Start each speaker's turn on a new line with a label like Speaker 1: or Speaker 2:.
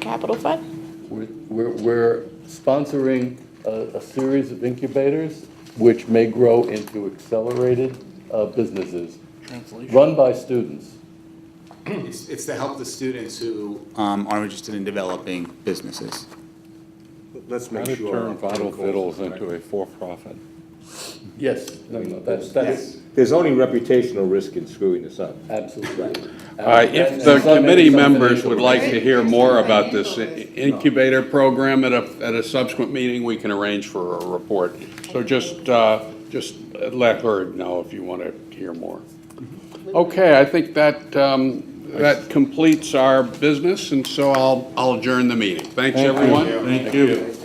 Speaker 1: capital fund?
Speaker 2: We're- We're we're sponsoring a a series of incubators which may grow into accelerated uh, businesses, run by students.
Speaker 3: It's, it's to help the students who um, are interested in developing businesses.
Speaker 4: Let's
Speaker 5: How
Speaker 4: make
Speaker 5: to
Speaker 4: sure.
Speaker 5: turn Vital
Speaker 4: Article-
Speaker 5: Fiddles into a for-profit.
Speaker 2: Yes, no, no, that's, that's
Speaker 4: There's only reputational risk in screwing this up.
Speaker 2: absolutely.
Speaker 5: Uh, If the committee members would like to hear more about this incubator program at a, at a subsequent meeting, we can arrange for a report. So just, uh, just let her know if you want to hear more. Okay, I think that, um, that completes our business, and so I'll, I'll adjourn the meeting. Thanks, everyone. Thank you.